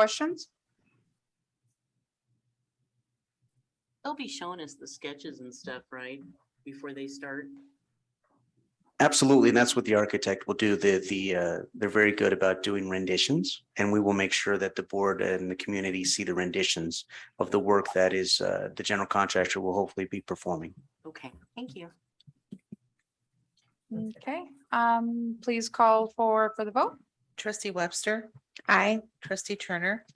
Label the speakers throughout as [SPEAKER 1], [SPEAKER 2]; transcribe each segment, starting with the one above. [SPEAKER 1] questions?
[SPEAKER 2] They'll be showing us the sketches and stuff, right? Before they start.
[SPEAKER 3] Absolutely, and that's what the architect will do. The, the, uh, they're very good about doing renditions, and we will make sure that the board and the community see the renditions of the work that is, uh, the general contractor will hopefully be performing.
[SPEAKER 2] Okay, thank you.
[SPEAKER 1] Okay, um, please call for, for the vote.
[SPEAKER 4] Trustee Webster. Aye. Trustee Turner.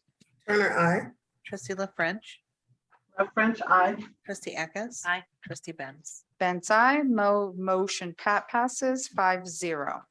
[SPEAKER 5] Turner, I.
[SPEAKER 4] Trustee La French.
[SPEAKER 5] French, I.
[SPEAKER 4] Trustee Eckes.
[SPEAKER 2] Aye.
[SPEAKER 4] Trustee Benz.
[SPEAKER 1] Benz, I, mo- motion pat passes five zero.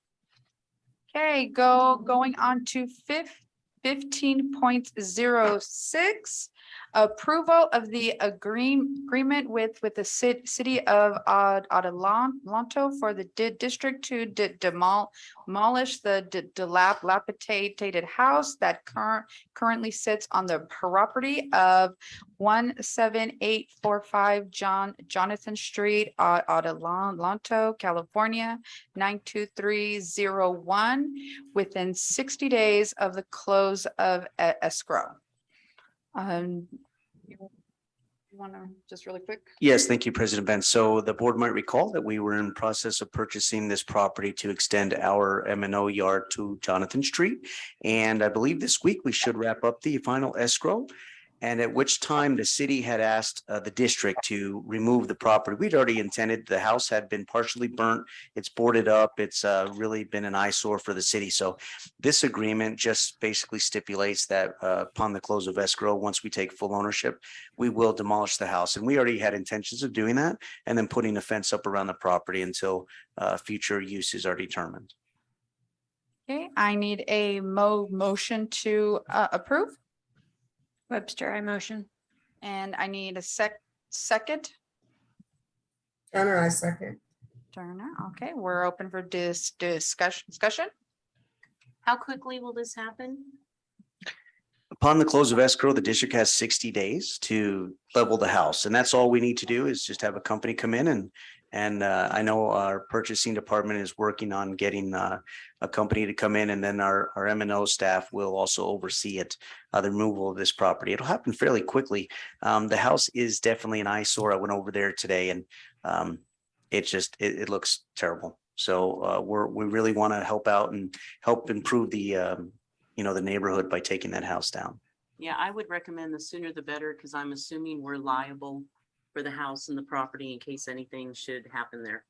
[SPEAKER 1] Okay, go, going on to fif- fifteen point zero six. Approval of the agreement, agreement with, with the cit- city of Ad- Adelanto for the di- district to de- demol- demolish the di- dilap- dilapidated house that current, currently sits on the property of one seven eight four five John Jonathan Street, uh, Adelanto, California, nine two three zero one, within sixty days of the close of e- escrow. Um, you want to, just really quick?
[SPEAKER 3] Yes, thank you, President Benz. So the board might recall that we were in process of purchasing this property to extend our M and O yard to Jonathan Street. And I believe this week we should wrap up the final escrow. And at which time the city had asked uh, the district to remove the property. We'd already intended, the house had been partially burnt. It's boarded up. It's uh, really been an eyesore for the city. So this agreement just basically stipulates that uh, upon the close of escrow, once we take full ownership, we will demolish the house. And we already had intentions of doing that and then putting a fence up around the property until uh, future uses are determined.
[SPEAKER 1] Okay, I need a mo- motion to, uh, approve,
[SPEAKER 6] Webster, I motion.
[SPEAKER 1] and I need a sec- second.
[SPEAKER 5] Turner, I second.
[SPEAKER 1] Turner, okay, we're open for dis- discussion, discussion.
[SPEAKER 2] How quickly will this happen?
[SPEAKER 3] Upon the close of escrow, the district has sixty days to level the house, and that's all we need to do is just have a company come in and. And uh, I know our purchasing department is working on getting uh, a company to come in, and then our our M and O staff will also oversee it. Uh, the removal of this property. It'll happen fairly quickly. Um, the house is definitely an eyesore. I went over there today and. Um, it just, it it looks terrible. So uh, we're, we really want to help out and help improve the um, you know, the neighborhood by taking that house down.
[SPEAKER 2] Yeah, I would recommend the sooner the better because I'm assuming we're liable for the house and the property in case anything should happen there.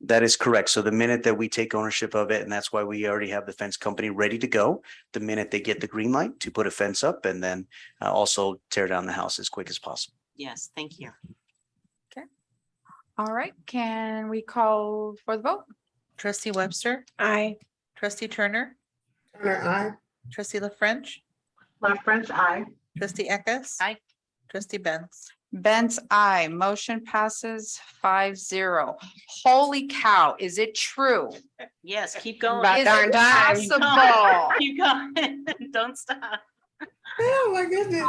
[SPEAKER 3] That is correct. So the minute that we take ownership of it, and that's why we already have the fence company ready to go, the minute they get the green light to put a fence up and then uh, also tear down the house as quick as possible.
[SPEAKER 2] Yes, thank you.
[SPEAKER 1] All right, can we call for the vote?
[SPEAKER 4] Trustee Webster.
[SPEAKER 6] I.
[SPEAKER 4] Trustee Turner.
[SPEAKER 5] Turner, I.
[SPEAKER 4] Trustee La French.
[SPEAKER 5] La French, I.
[SPEAKER 4] Trustee Eckes.
[SPEAKER 2] Aye.
[SPEAKER 4] Trustee Benz.
[SPEAKER 1] Benz, I, motion passes five zero. Holy cow, is it true?
[SPEAKER 2] Yes, keep going.
[SPEAKER 6] About
[SPEAKER 1] Is
[SPEAKER 6] darn
[SPEAKER 1] it
[SPEAKER 6] time.
[SPEAKER 1] possible?
[SPEAKER 2] Keep going. Don't stop.
[SPEAKER 5] Oh, my goodness.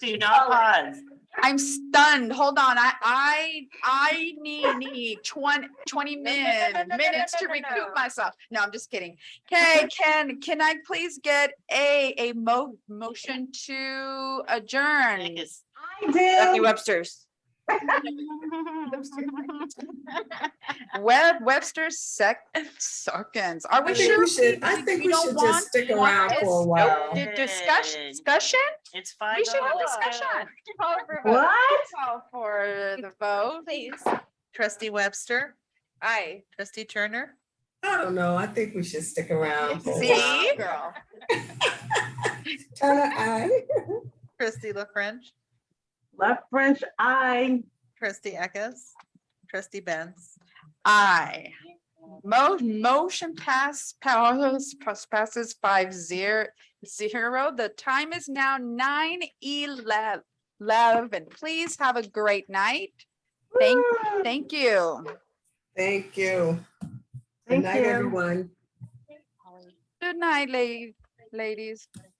[SPEAKER 2] Do not pause.
[SPEAKER 1] I'm stunned. Hold on, I, I, I need, need twenty, twenty
[SPEAKER 6] No, no, no, no,
[SPEAKER 1] min,
[SPEAKER 6] no, no,
[SPEAKER 1] minutes
[SPEAKER 6] no,
[SPEAKER 1] to
[SPEAKER 6] no,
[SPEAKER 1] recoup
[SPEAKER 6] no.
[SPEAKER 1] myself. No, I'm just kidding. Okay, can, can I please get a, a mo- motion to adjourn?
[SPEAKER 2] Yes.
[SPEAKER 6] Stephanie Webster's.
[SPEAKER 1] Web, Webster sec, seconds. Are
[SPEAKER 5] I
[SPEAKER 1] we
[SPEAKER 5] think
[SPEAKER 1] sure?
[SPEAKER 5] we should, I think
[SPEAKER 1] we
[SPEAKER 5] we
[SPEAKER 1] don't
[SPEAKER 5] should
[SPEAKER 1] want-
[SPEAKER 5] just stick
[SPEAKER 1] want
[SPEAKER 5] around
[SPEAKER 1] this?
[SPEAKER 5] for a
[SPEAKER 1] Nope.
[SPEAKER 5] while.
[SPEAKER 1] Did discussion,
[SPEAKER 2] Good.
[SPEAKER 1] discussion?
[SPEAKER 2] It's fine.
[SPEAKER 1] We should have discussion. Oh. Call for vote. Call for the vote.
[SPEAKER 6] Please.
[SPEAKER 4] Trustee Webster.
[SPEAKER 6] I.
[SPEAKER 4] Trustee Turner.
[SPEAKER 5] I don't know. I think we should stick around. for a
[SPEAKER 1] See?
[SPEAKER 5] while. Turner, I.
[SPEAKER 4] Trustee La French.
[SPEAKER 5] Left French, I.
[SPEAKER 4] Trustee Eckes. Trustee Benz.
[SPEAKER 1] Aye. Mo- motion pass, powers, pass- passes five zero, zero. The time is now nine eleven. Please have a great night. Thank, thank you.
[SPEAKER 5] Thank you. Good night, everyone.
[SPEAKER 1] Good night, la- ladies.